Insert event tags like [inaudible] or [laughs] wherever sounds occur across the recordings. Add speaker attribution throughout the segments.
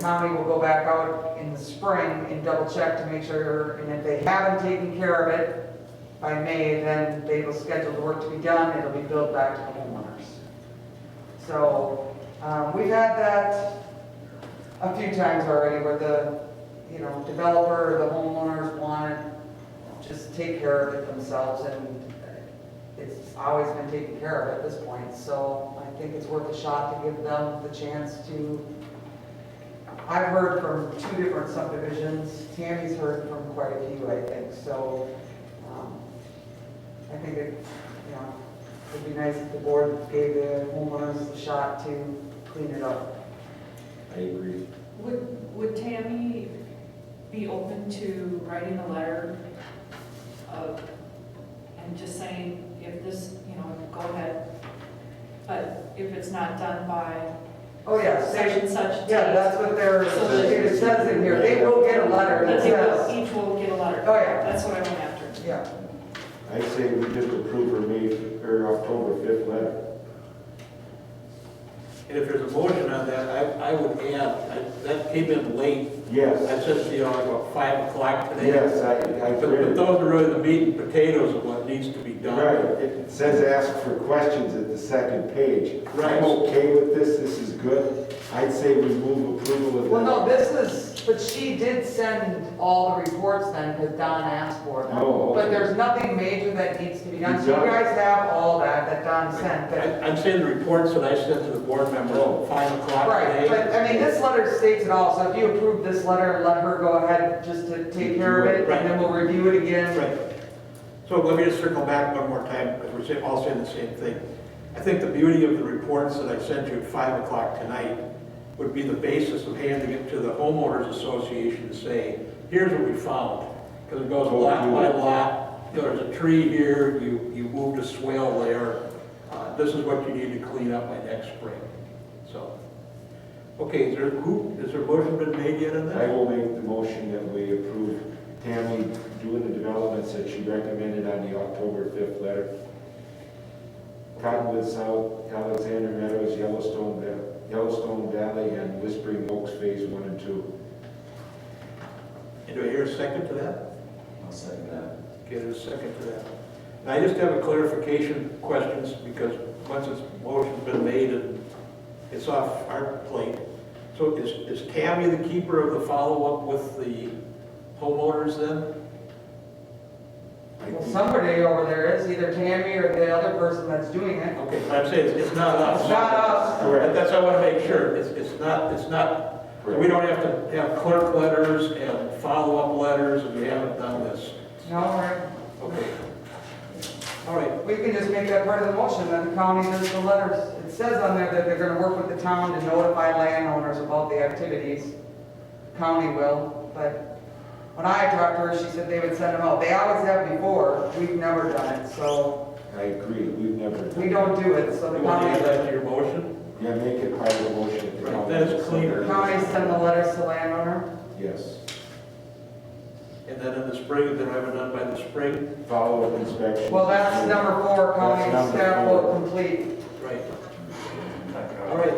Speaker 1: Tommy will go back out in the spring and double check to make sure, and if they haven't taken care of it by May, then they will schedule the work to be done, it'll be billed back to the homeowners. So, um, we've had that a few times already where the, you know, developer or the homeowners want to just take care of it themselves and it's always been taken care of at this point, so I think it's worth a shot to give them the chance to I've heard from two different subdivisions, Tammy's heard from quite a few, I think, so, um, I think it, you know, it'd be nice if the board gave the homeowners a shot to clean it up.
Speaker 2: I agree.
Speaker 3: Would, would Tammy be open to writing a letter of, and just saying, if this, you know, go ahead, but if it's not done by
Speaker 1: Oh, yes,
Speaker 3: such
Speaker 1: they,
Speaker 3: and such date.
Speaker 1: yeah, that's what they're, it says in here, they will get a letter that
Speaker 3: That they will,
Speaker 1: says,
Speaker 3: each will get a letter.
Speaker 1: Oh, yeah.
Speaker 3: That's what I went after.
Speaker 1: yeah,
Speaker 2: I say we just approve her May, or October fifth letter.
Speaker 4: And if there's a motion on that, I, I would add, I- that came in late,
Speaker 2: Yes,
Speaker 4: that's just, you know, like about five o'clock today.
Speaker 2: yes, I, I
Speaker 4: But
Speaker 2: read
Speaker 4: but
Speaker 2: it.
Speaker 4: those are really the meat and potatoes of what needs to be
Speaker 2: Right,
Speaker 4: done.
Speaker 2: it says ask for questions at the second page.
Speaker 4: Right.
Speaker 2: I'm okay with this, this is good. I'd say we move approval of
Speaker 1: well, no,
Speaker 2: that.
Speaker 1: this is, but she did send all the reports then, because Don asked for them.
Speaker 2: Oh, okay.
Speaker 1: But there's nothing major that needs to be done, so you
Speaker 2: Done.
Speaker 1: guys have all that, that Don sent, that
Speaker 4: I- I'm saying the reports that I sent to the board members, at five o'clock
Speaker 1: Right, but
Speaker 4: today.
Speaker 1: I mean, this letter states it all, so if you approve this letter, let her go ahead just to take care of it, and then we'll review it again.
Speaker 4: Right. So let me just circle back one more time, because we're saying- all saying the same thing. I think the beauty of the reports that I sent you at five o'clock tonight would be the basis of handing it to the homeowners association to say, here's what we found. Because it goes lot by lot, you know, there's a tree here, you, you moved a swale there. Uh, This is what you need to clean up by next spring, so. Okay, is there, who, is there a motion been made yet on
Speaker 2: I
Speaker 4: that?
Speaker 2: will make the motion that we approve Tammy doing the developments that she recommended on the October fifth letter. Cottonwood South, Alexander Meadows, Yellowstone, Va- Yellowstone Valley, and Whispering Oaks Phase One and Two.
Speaker 4: And do I hear a second to that?
Speaker 5: I'll second that.
Speaker 4: Okay, there's a second to that. And I just have a clarification questions, because once it's, motion's been made and it's off our plate. So is, is Tammy the keeper of the follow-up with the homeowners then?
Speaker 2: I
Speaker 1: Well,
Speaker 2: think-
Speaker 1: Somebody over there is, either Tammy or the other person that's doing it.
Speaker 4: Okay, but I'm saying it's- it's not us.
Speaker 1: It's not us.
Speaker 4: That- That's, I wanna make sure, it's, it's not, it's not, we don't have to have clerk letters and follow-up letters, and we haven't done this.
Speaker 1: No, right,
Speaker 4: Okay. All right,
Speaker 1: we can just make that part of the motion, that the county does the letters. It says on there that they're gonna work with the town to notify landowners about the activities. County will, but when I talked to her, she said they would send them out. They always have before, we've never done it, so
Speaker 2: I agree, we've never.
Speaker 1: we don't do it, so the
Speaker 4: you want to
Speaker 1: county.
Speaker 4: add that to your motion?
Speaker 2: Yeah, make it part of the motion. if the
Speaker 4: Right,
Speaker 2: county-
Speaker 4: that is cleaner.
Speaker 1: County send the letters to landowner?
Speaker 2: Yes.
Speaker 4: And then in the spring, if they haven't done by the spring,
Speaker 2: Follow-up inspection.
Speaker 1: Well, that's number four, county
Speaker 2: That's number
Speaker 1: staff will
Speaker 2: four.
Speaker 1: complete.
Speaker 4: Right. All right.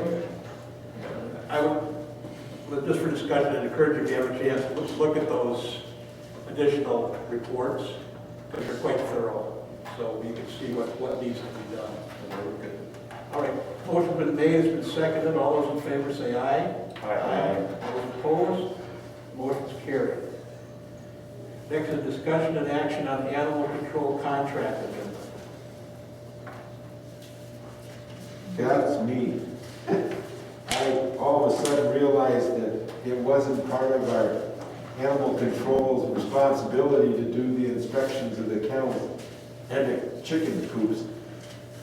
Speaker 4: I would, but just for discussion, I'd encourage you, if you have a chance, let's look at those additional reports, because they're quite thorough, so you can see what, what needs to be done. and where we could- All right, motion been made, it's been seconded, all those in favor say aye.
Speaker 2: Aye.
Speaker 4: Those opposed, motion's carried. Next is discussion and action on the animal control contract agreement.
Speaker 2: That's me. [laughs] I all of a sudden realized that it wasn't part of our animal control's responsibility to do the inspections of the kennels and the chicken coops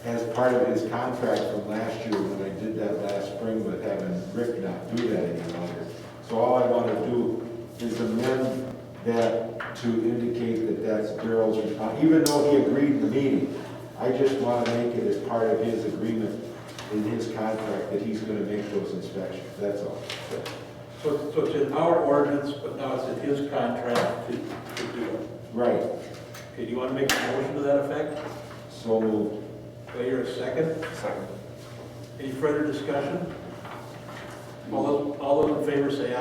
Speaker 2: as part of his contract from last year when I did that last spring with having Rick not do that any longer. So all I want to do is amend that to indicate that that's Daryl's responsibility, even though he agreed in the meeting. I just want to make it as part of his agreement in his contract that he's going to make those inspections, that's all.
Speaker 4: So, so it's in our ordinance, but now it's in his contract to, to do it.
Speaker 2: Right,
Speaker 4: Okay, do you want to make a motion to that effect?
Speaker 2: so moved.
Speaker 4: Do I hear a second? Second. Any further discussion? All those, all those in favor say aye.